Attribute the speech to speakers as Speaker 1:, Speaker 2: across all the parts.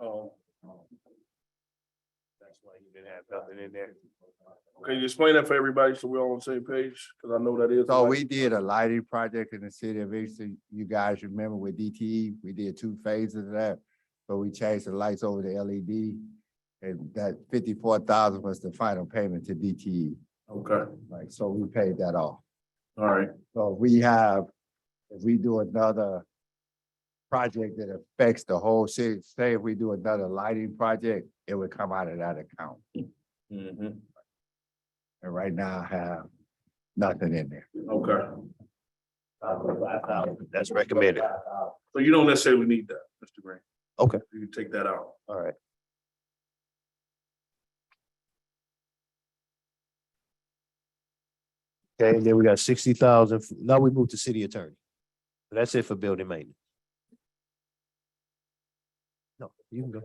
Speaker 1: Um,
Speaker 2: Oh. That's why you didn't have nothing in there.
Speaker 1: Can you explain that for everybody so we're all on the same page? Cause I know that is.
Speaker 2: Oh,
Speaker 3: So we did a lighting project in the city of Easton. You guys remember with DTE, we did two phases of that. But we changed the lights over to LED and that fifty-four thousand was the final payment to DTE.
Speaker 1: Okay,
Speaker 3: Like, so we paid that off.
Speaker 1: all right,
Speaker 3: So we have, if we do another project that affects the whole city, say if we do another lighting project, it would come out of that account. And right now I have nothing in there.
Speaker 1: okay.
Speaker 2: That's recommended.
Speaker 1: So you don't necessarily need that, Mr. Green.
Speaker 2: Okay.
Speaker 1: You can take that out.
Speaker 2: All right. Okay, and then we got sixty thousand. Now we move to city attorney. That's it for building maintenance. No, you can go.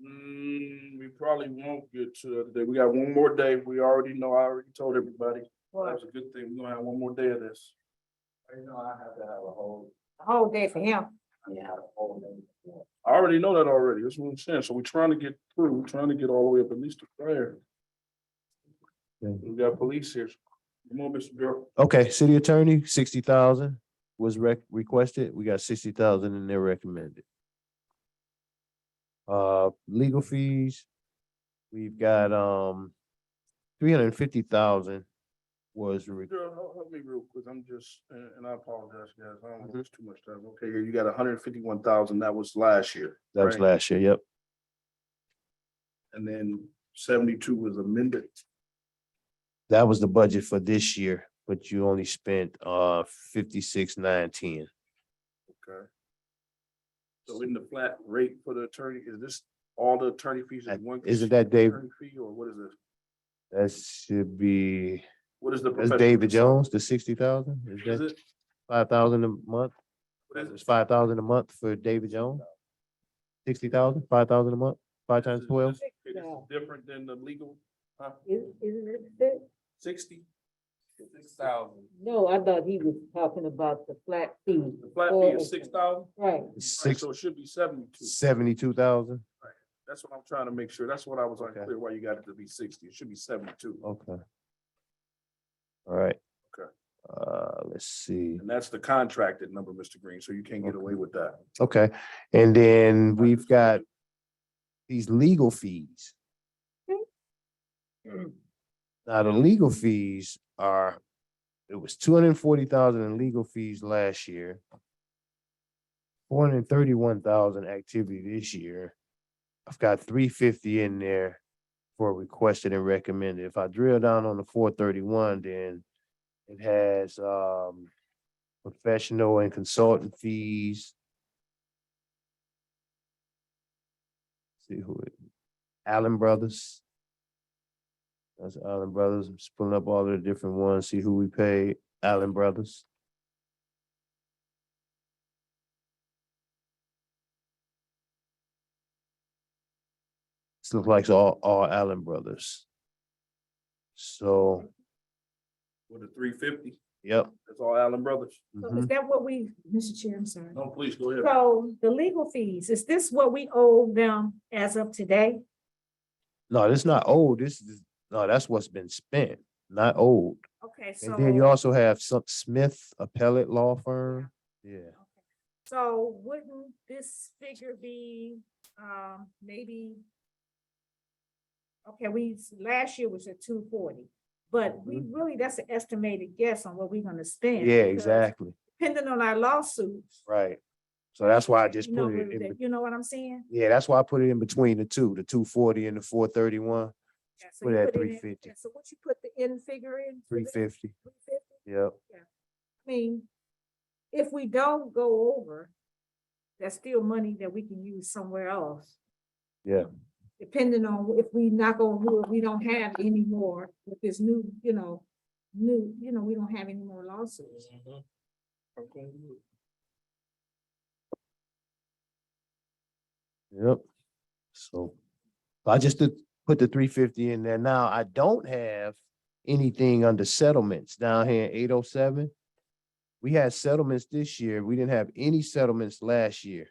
Speaker 1: Mm, we probably won't get to the other day. We got one more day. We already know, I already told everybody. That's a good thing. We're gonna have one more day of this.
Speaker 3: You know, I have to have a whole.
Speaker 4: whole day for him.
Speaker 1: I already know that already. That's what I'm saying. So we're trying to get through, we're trying to get all the way up at least to prayer.
Speaker 2: Okay.
Speaker 1: We got police here. Come on, Mr. Bureau.
Speaker 2: Okay, city attorney, sixty thousand was rec- requested. We got sixty thousand in there recommended. Uh, legal fees, we've got, um, three hundred and fifty thousand was re-
Speaker 1: Girl, help, help me real quick. I'm just, and, and I apologize, guys. I don't want
Speaker 2: Mm-hmm.
Speaker 1: this too much time. Okay, you got hundred and fifty-one thousand. That was last year.
Speaker 2: that was
Speaker 1: right?
Speaker 2: last year, yep.
Speaker 1: And then seventy-two was amended.
Speaker 2: That was the budget for this year, but you only spent, uh, fifty-six, nine, ten.
Speaker 1: Okay. So in the flat rate for the attorney, is this all the attorney fees
Speaker 2: That-
Speaker 1: in one?
Speaker 2: isn't that Dave-
Speaker 1: attorney Fee or what is it?
Speaker 2: That should be,
Speaker 1: What is the?
Speaker 2: that's
Speaker 1: professional
Speaker 2: David
Speaker 1: service?
Speaker 2: Jones, the sixty thousand? Is
Speaker 1: Is
Speaker 2: that
Speaker 1: it?
Speaker 2: five thousand a month?
Speaker 1: what is it?
Speaker 2: It's five thousand a month for David Jones? Sixty thousand, five thousand a month, five times
Speaker 1: This is-
Speaker 2: twelve?
Speaker 1: this- It's different than the legal, huh,
Speaker 4: Isn't it six?
Speaker 1: sixty? Six thousand.
Speaker 4: No, I thought he was talking about the flat fee.
Speaker 1: The flat fee is six thousand?
Speaker 4: Right.
Speaker 2: Six,
Speaker 1: So it should be seventy-two.
Speaker 2: seventy-two thousand?
Speaker 1: That's what I'm trying to make sure. That's what I was
Speaker 2: Okay. Oh.
Speaker 1: unclear why you got it to be sixty. It should be seventy-two.
Speaker 2: Okay. All right.
Speaker 1: Okay.
Speaker 2: Uh, let's see.
Speaker 1: And that's the contracted number, Mr. Green, so you can't get away with that.
Speaker 2: Okay, and then we've got these legal fees. Now, the legal fees are, it was two hundred and forty thousand in legal fees last year. Four hundred and thirty-one thousand activity this year. I've got three fifty in there for requested and recommended. If I drill down on the four thirty-one, then it has, um, professional and consultant fees. See who it, Allen Brothers. That's Allen Brothers. I'm just pulling up all the different ones, see who we pay, Allen Brothers. This looks like it's all, all Allen Brothers. So,
Speaker 1: With the three fifty,
Speaker 2: yep.
Speaker 1: that's all Allen Brothers.
Speaker 4: So
Speaker 2: mhm.
Speaker 4: Is that what we, Mr. Chair, I'm sorry.
Speaker 1: No, please go ahead.
Speaker 4: So the legal fees, is this what we owe them as of today?
Speaker 2: No, that's not old. This is, no, that's what's been spent, not old.
Speaker 4: Okay, so.
Speaker 2: And then you also have some Smith Appellate Law Firm. Yeah.
Speaker 4: So wouldn't this figure be, um, maybe? Okay, we, s- last year was at two forty, but we really, that's an estimated guess on what we're gonna spend.
Speaker 2: Mm-hmm. Yeah,
Speaker 4: because
Speaker 2: exactly.
Speaker 4: Depending on our lawsuits.
Speaker 2: Right. So that's why I just
Speaker 4: you know,
Speaker 2: put it
Speaker 4: we-
Speaker 2: in,
Speaker 4: that-
Speaker 2: bet-
Speaker 4: You know what I'm saying?
Speaker 2: yeah, that's why I put it in between the two, the two forty and the four thirty-one,
Speaker 4: Yeah, so
Speaker 2: put
Speaker 4: you
Speaker 2: it at
Speaker 4: put it in-
Speaker 2: 350.
Speaker 4: yeah, So what you put the end figure in? for
Speaker 2: three
Speaker 4: this,
Speaker 2: fifty.
Speaker 4: 350?
Speaker 2: Yep.
Speaker 4: I mean, if we don't go over, that's still money that we can use somewhere else.
Speaker 2: Yeah.
Speaker 4: Depending on if we knock on wood, we don't have any more with this new, you know, new, you know, we don't have any more lawsuits.
Speaker 1: Okay.
Speaker 2: Yep. So I just did put the three fifty in there. Now, I don't have anything under settlements down here in eight oh seven. We had settlements this year. We didn't have any settlements last year.